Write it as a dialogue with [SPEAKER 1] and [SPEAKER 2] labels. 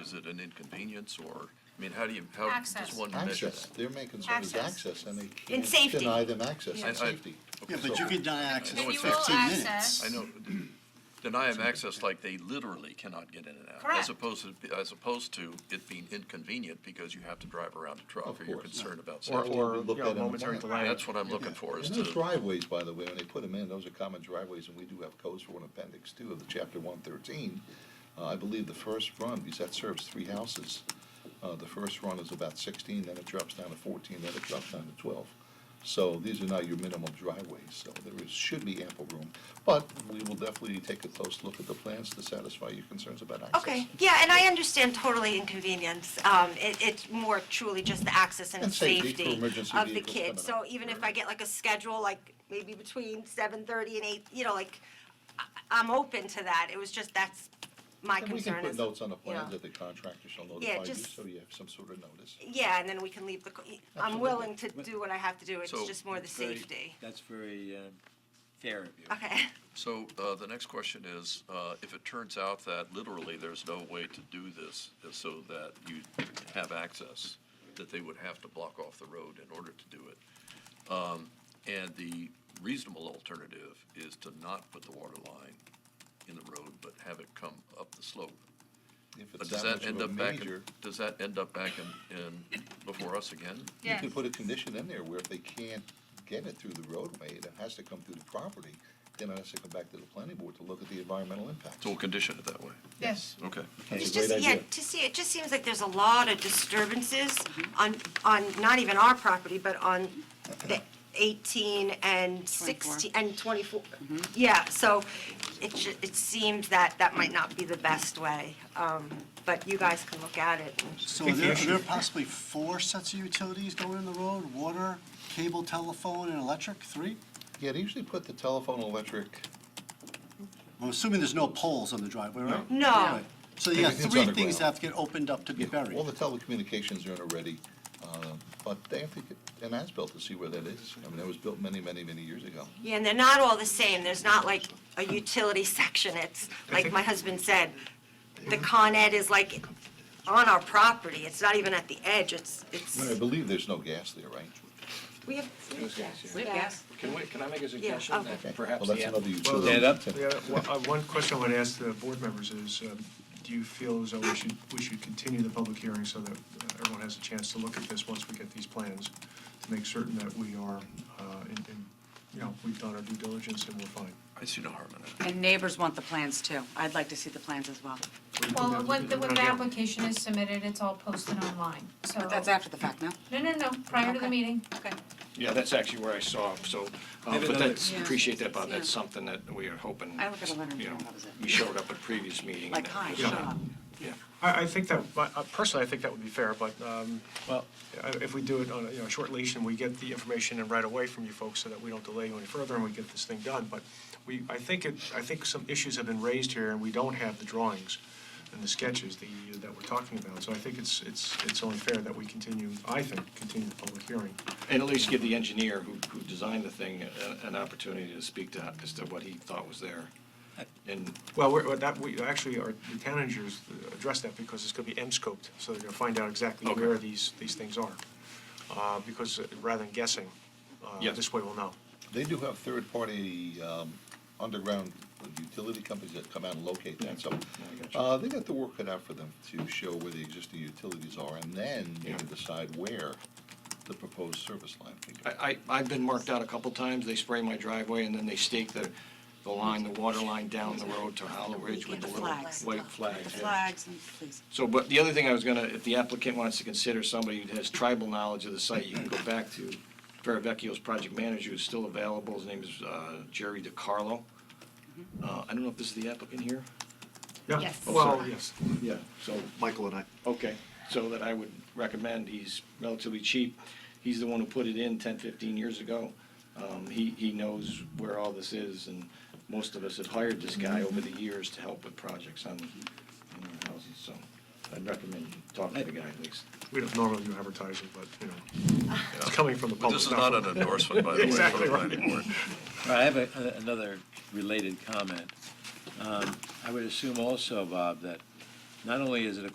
[SPEAKER 1] is it an inconvenience or, I mean, how do you, how
[SPEAKER 2] Access.
[SPEAKER 1] does one measure
[SPEAKER 3] Access,
[SPEAKER 1] that?
[SPEAKER 3] their main concern is
[SPEAKER 2] Access.
[SPEAKER 3] access, and they
[SPEAKER 4] And
[SPEAKER 3] can't
[SPEAKER 4] safety.
[SPEAKER 3] deny them access,
[SPEAKER 2] Yeah.
[SPEAKER 3] and
[SPEAKER 1] I- I-
[SPEAKER 3] safety.
[SPEAKER 5] Yeah, but you can deny access
[SPEAKER 1] No,
[SPEAKER 2] If
[SPEAKER 5] for
[SPEAKER 1] it's
[SPEAKER 2] you will
[SPEAKER 5] 15 minutes.
[SPEAKER 2] access,
[SPEAKER 1] I know, deny them access like they literally cannot get in and out.
[SPEAKER 4] Correct.
[SPEAKER 1] As opposed to, as opposed to it being inconvenient because you have to drive around a truck
[SPEAKER 3] Of
[SPEAKER 1] or you're
[SPEAKER 3] course.
[SPEAKER 1] concerned about
[SPEAKER 3] Or,
[SPEAKER 1] safety.
[SPEAKER 3] or
[SPEAKER 6] you
[SPEAKER 3] looked
[SPEAKER 6] know,
[SPEAKER 3] at in the
[SPEAKER 6] momentary
[SPEAKER 3] morning.
[SPEAKER 6] delay.
[SPEAKER 1] That's what I'm looking
[SPEAKER 5] Yeah.
[SPEAKER 1] for is
[SPEAKER 3] And those
[SPEAKER 1] to,
[SPEAKER 3] driveways, by the way, when they put them in, those are common driveways, and we do have codes for an appendix two of the chapter one thirteen. Uh, I believe the first run, because that serves three houses, uh, the first run is about sixteen, then it drops down to fourteen, then it drops down to twelve. So these are not your minimum driveways, so there is, should be ample room. But we will definitely take a close look at the plans to satisfy your concerns about access.
[SPEAKER 4] Okay, yeah, and I understand totally inconvenience. Um, it, it's more truly just the access and
[SPEAKER 3] And safety for
[SPEAKER 4] safety
[SPEAKER 3] emergency
[SPEAKER 4] of the
[SPEAKER 3] vehicles
[SPEAKER 4] kids.
[SPEAKER 3] coming
[SPEAKER 4] So
[SPEAKER 3] up.
[SPEAKER 4] even if I get like a schedule, like maybe between seven thirty and eight, you know, like, I, I'm open to that. It was just, that's my
[SPEAKER 3] And we
[SPEAKER 4] concern
[SPEAKER 3] can
[SPEAKER 4] is.
[SPEAKER 3] put notes on the
[SPEAKER 4] you know.
[SPEAKER 3] plans that the contractor shall notify you,
[SPEAKER 4] just-
[SPEAKER 3] so you have some sort of notice.
[SPEAKER 4] Yeah, and then we can leave the, co- I'm
[SPEAKER 3] Absolutely.
[SPEAKER 4] willing to do what I have to do. It's
[SPEAKER 1] So,
[SPEAKER 4] just more the
[SPEAKER 6] Very-
[SPEAKER 4] safety.
[SPEAKER 6] That's very uh, fair of you.
[SPEAKER 4] Okay,
[SPEAKER 1] so, uh, the next question is, uh, if it turns out that literally there's no way to do this uh, so that you have access, that they would have to block off the road in order to do it. Um, and the reasonable alternative is to not put the water line in the road, but have it come up the slope.
[SPEAKER 3] If
[SPEAKER 1] But
[SPEAKER 3] it's
[SPEAKER 1] does
[SPEAKER 3] that much
[SPEAKER 1] that
[SPEAKER 3] of
[SPEAKER 1] end
[SPEAKER 3] a
[SPEAKER 1] up back, in-
[SPEAKER 3] major,
[SPEAKER 1] does that end up back in, in, before us again?
[SPEAKER 3] you
[SPEAKER 2] yes.
[SPEAKER 3] can put a condition in there where if they can't get it through the roadway, it has to come through the property, then it has to come back to the planning board to look at the environmental impact.
[SPEAKER 1] So we'll condition it that way,
[SPEAKER 3] Yes.
[SPEAKER 1] okay.
[SPEAKER 3] That's a
[SPEAKER 4] It's
[SPEAKER 3] great
[SPEAKER 4] just, yeah,
[SPEAKER 3] idea.
[SPEAKER 4] to see, it just seems like there's a lot of disturbances on, on, not even our property, but on the eighteen and sixteen, and twenty-four.
[SPEAKER 7] Mm-hmm.
[SPEAKER 4] Yeah, so it ju, it seems that that might not be the best way, um, but you guys can look at it. and-
[SPEAKER 5] So are there, are there possibly four sets of utilities going in the road, water, cable, telephone, and electric, three?
[SPEAKER 3] Yeah, they usually put the telephone, electric,
[SPEAKER 5] I'm assuming there's no poles on the driveway, right?
[SPEAKER 4] No. No.
[SPEAKER 5] Right. So you have
[SPEAKER 3] Everything's
[SPEAKER 5] three things
[SPEAKER 3] underground.
[SPEAKER 5] that have to get opened up to be buried.
[SPEAKER 3] all the telecommunications are in already, uh, but they have to get an as-built to see where that is. I mean, that was built many, many, many years ago.
[SPEAKER 4] Yeah, and they're not all the same, there's not like a utility section, it's, like my husband said, the Con Ed is like on our property, it's not even at the edge, it's,
[SPEAKER 3] But I
[SPEAKER 4] it's,
[SPEAKER 3] believe there's no gas there, right?
[SPEAKER 4] we have.
[SPEAKER 7] We have gas. Can we, can I make a
[SPEAKER 4] oh.
[SPEAKER 7] suggestion
[SPEAKER 3] Okay.
[SPEAKER 7] that perhaps
[SPEAKER 3] Well,
[SPEAKER 7] the
[SPEAKER 3] that's
[SPEAKER 7] app-
[SPEAKER 3] another utility.
[SPEAKER 6] stand up.
[SPEAKER 8] Yeah, well, uh, One question I would ask the board members is, um, do you feel as though we should, we should continue the public hearing so that uh, everyone has a chance to look at this once we get these plans, to make certain that we are, uh, in- in- you know, we've done our due diligence and we're fine?
[SPEAKER 1] I see no harm in that.
[SPEAKER 7] And neighbors want the plans too. I'd like to see the plans as well.
[SPEAKER 2] Well, when the, when the application is submitted, it's all posted online, so.
[SPEAKER 7] But that's after the fact, no?
[SPEAKER 2] No, no, no, prior to the
[SPEAKER 7] Okay.
[SPEAKER 2] meeting.
[SPEAKER 7] Okay.
[SPEAKER 9] Yeah, that's actually where I saw, so, uh,
[SPEAKER 8] Maybe
[SPEAKER 9] but
[SPEAKER 8] another-
[SPEAKER 9] that's,
[SPEAKER 7] Yeah.
[SPEAKER 9] appreciate that, Bob, that's
[SPEAKER 7] Yeah.
[SPEAKER 9] something that we are hoping.
[SPEAKER 7] I look at a letter and
[SPEAKER 9] you know,
[SPEAKER 7] think, what was it?
[SPEAKER 9] We showed up at previous meeting. and
[SPEAKER 7] Like,
[SPEAKER 9] that
[SPEAKER 7] hi,
[SPEAKER 9] was-
[SPEAKER 7] shut up.
[SPEAKER 9] Yeah.
[SPEAKER 8] I, I think that, uh, personally, I think that would be fair, but um, uh, if we do it on, a, you know, short leash and we get the information and right away from you folks so that we don't delay you any further and we get this thing done, but we, I think it, I think some issues have been raised here and we don't have the drawings and the sketches that you, that we're talking about, so I think it's, it's, it's only fair that we continue, I think, continue the public hearing.
[SPEAKER 9] And at least give the engineer who, who designed the thing a- an opportunity to speak to, as to what he thought was there. And
[SPEAKER 8] Well, we're, well, that, we, actually, our, the town engineers address that because it's gonna be M-scoped, so they're gonna find out exactly
[SPEAKER 9] Okay.
[SPEAKER 8] where these, these things are. Uh, because uh, rather than guessing, uh,
[SPEAKER 9] Yeah.
[SPEAKER 8] this way we'll know.
[SPEAKER 3] They do have third-party um, underground utility companies that come out and locate that, so uh, they got the work cut out for them to show where the existing utilities are, and then they can
[SPEAKER 9] Yeah.
[SPEAKER 3] decide where the proposed service line can go.
[SPEAKER 9] I, I, I've been marked out a couple times, they spray my driveway and then they stake the, the line, the water line down the road to Hollow Ridge with
[SPEAKER 7] The
[SPEAKER 9] the little
[SPEAKER 7] flags.
[SPEAKER 9] white flags.
[SPEAKER 7] The
[SPEAKER 9] yeah.
[SPEAKER 7] flags, and please.
[SPEAKER 9] So, but the other thing I was gonna, if the applicant wants to consider somebody who has tribal knowledge of the site, you can go back to Ferravecchio's project manager who's still available. His name is uh, Jerry DiCarlo. Uh, I don't know if this is the applicant here?
[SPEAKER 8] Yeah.
[SPEAKER 2] Yes.
[SPEAKER 8] Well, yes.
[SPEAKER 9] Yeah. So,
[SPEAKER 10] Michael and I.
[SPEAKER 9] okay, so that I would recommend, he's relatively cheap. He's the one who put it in 10, 15 years ago. Um, He, he knows where all this is, and most of us have hired this guy over the years to help with projects on, on our houses, so I'd recommend talking to the guy at least.
[SPEAKER 8] We don't normally do advertising, but, you know, it's coming from the
[SPEAKER 1] But
[SPEAKER 8] public.
[SPEAKER 3] Oh,
[SPEAKER 1] this is not
[SPEAKER 8] from-
[SPEAKER 1] an endorsement, by the way, for
[SPEAKER 8] Exactly
[SPEAKER 1] the
[SPEAKER 8] right.
[SPEAKER 1] planning board.
[SPEAKER 11] All right, I have a- a- another related comment. Um, I would assume also, Bob, that not only is it a